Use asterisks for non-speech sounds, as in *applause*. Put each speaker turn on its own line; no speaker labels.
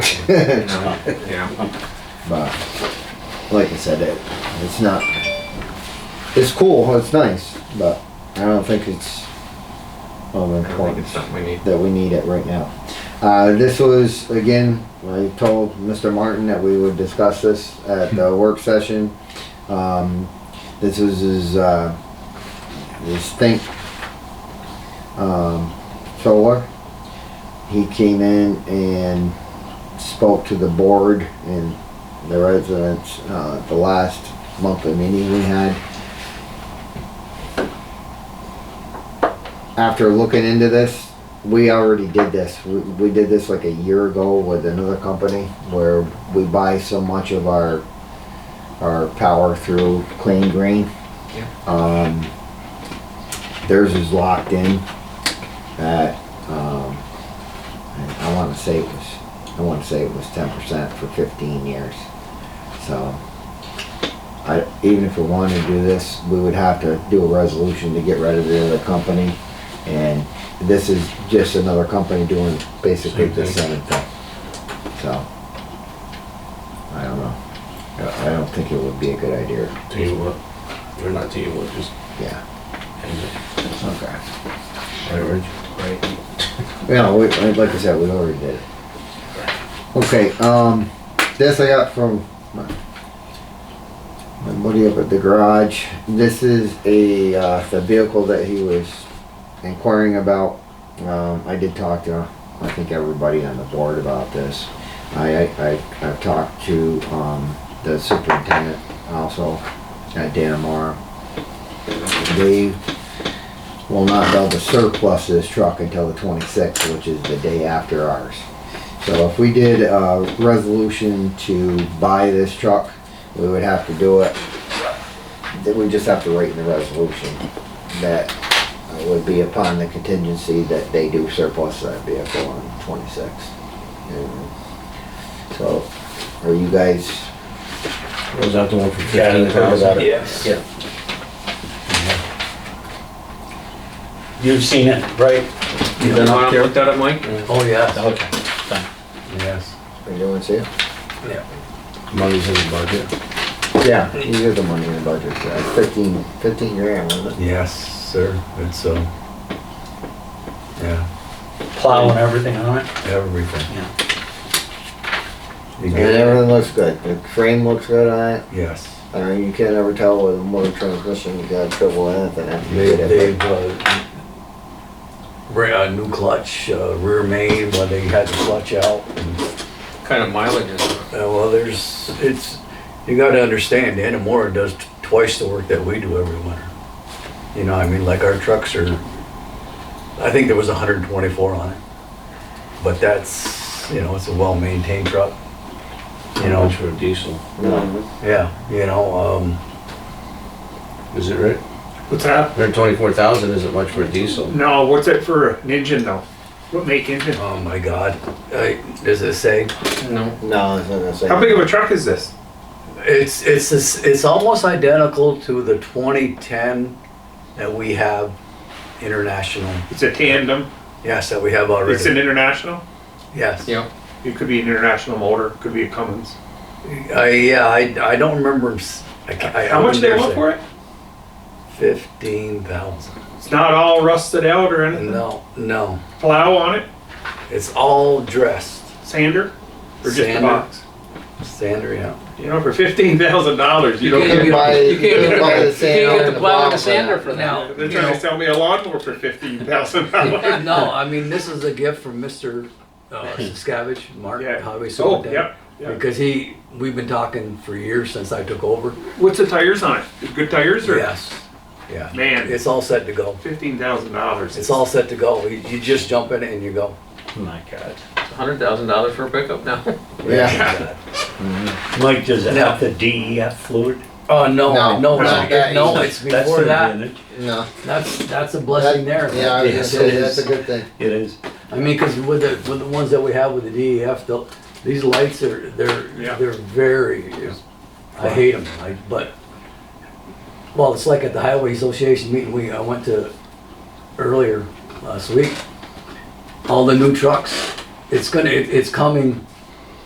*laughs*
you know, yeah.
But like I said, it it's not. It's cool. It's nice, but I don't think it's of
I think it's
importance
something we need.
that we need it right now. Uh, this was again. I told Mr. Martin that we would discuss this at the work session. Um, this was his uh, his think um, solar. He came in and spoke to the board and the residents, uh, at the last monthly meeting we had. After looking into this, we already did this. We, we did this like a year ago with another company where we buy so much of our, our power through Clean Green. Um, theirs is locked in at, um, and I wanna say it was I want to say it was ten percent for fifteen years. So, I, even if we wanted to do this, we would have to do a resolution to get rid of the other company. And this is just another company doing basically the same thing. So, I don't know. I I don't think it would be a good idea,
Tell you what, or not tell you what, just
yeah,
hang it.
okay.
Right, Reg?
Yeah, we, I- like I said, we already did it. Okay, um, this I got from my, my buddy up at the garage. This is a, uh, the vehicle that he was inquiring about. Um, I did talk to, I think everybody on the board about this. I, I, I- I've talked to, um, the superintendent also at Danamora. They will not be able to surplus this truck until the twenty-sixth, which is the day after ours. So if we did a resolution to buy this truck, we would have to do it. Then we just have to write in the resolution that it would be upon the contingency that they do surplus that vehicle on twenty-sixth. So, are you guys,
Was that the one for
Yeah,
fifteen
you heard about
thousand?
it.
Yes.
Yeah. You've seen it, right?
You wanna look that up, Mike?
Oh, yeah. Okay. Done.
Yes.
are you doing, see?
Money's in the budget?
Yeah. You get the money in the budget, yeah, fifteen, fifteen grand, wasn't it?
Yes, sir, it's, uh, yeah,
Plow and everything on it?
everything. You
And
get it?
everything looks good. The frame looks good on it.
Yes.
I mean, you can't ever tell with a motor transmission you got trouble with anything after you
They,
get
they've,
it.
uh, re- uh, new clutch, uh, rear main, but they had the clutch out. and
What Kind of mileage is it?
Uh, well, there's, it's, you gotta understand, Anamora does t- twice the work that we do every winter. You know, I mean, like our trucks are, I think there was hundred and twenty-four on it. But that's, you know, it's a well-maintained truck. You know,
for a diesel.
No.
yeah, you know, um,
Is it right?
What's that?
Hundred twenty-four thousand isn't much for a diesel.
No, what's it for an engine though? What make engine?
oh my God, I, does it say?
No.
No, it's not gonna say.
How big of a truck is this?
It's, it's, this- it's almost identical to the twenty-ten that we have international,
It's a tandem.
yes, that we have already.
It's an international.
Yes.
Yeah.
It could be an international motor. It could be a Cummins.
I yeah, I, I don't remember. s- I ca- I- I
How much do they
wouldn't say.
want for it?
Fifteen thousand.
It's not all rusted out or anything.
No, no,
Plow on it,
it's all dressed.
sander, or just a
Sander.
box.
Sander, yeah.
You know, for fifteen thousand dollars, you
You
don't.
can't
Get,
get-
buy-
you can't get-
buy the
you
sander
can't get
and
the
the
plow and
plow
the
for
sander
that.
for
Now,
that.
they're
you
trying
know, uh,
to sell me a lawnmower for fifteen
*laughs*
thousand dollars.
no, I mean this is a gift from Mister uh,
*laughs*
Scabbage, Mark
Yeah.
Highway
Oh,
Superintendent,
yep. yep.
because he we've been talking for years since I took over.
What's the tires on it? Good tires or?
Yes, yeah.
Man,
It's all set to go.
fifteen thousand dollars.
It's all set to go. You, you just jump in it and you go.
My God.
Hundred thousand dollars for a pickup now.
Yeah.
Mike, does it
Now-
have the DEF fluid?
Oh no,
No,
no, no,
not that
no,
either.
it's
That's
before
not
that.
in it.
No.
That's, that's a blessing there.
Yeah, I was gonna
Yes,
say,
it
that's a
is.
good thing.
It is.
I mean, because with the, with the ones that we have with the DEF, they'll- these lights are, they're,
Yeah.
they're very, I hate them, I, but, well, it's like at the Highway Association meeting we, I went to earlier last week. All the new trucks, it's gonna, it- it's coming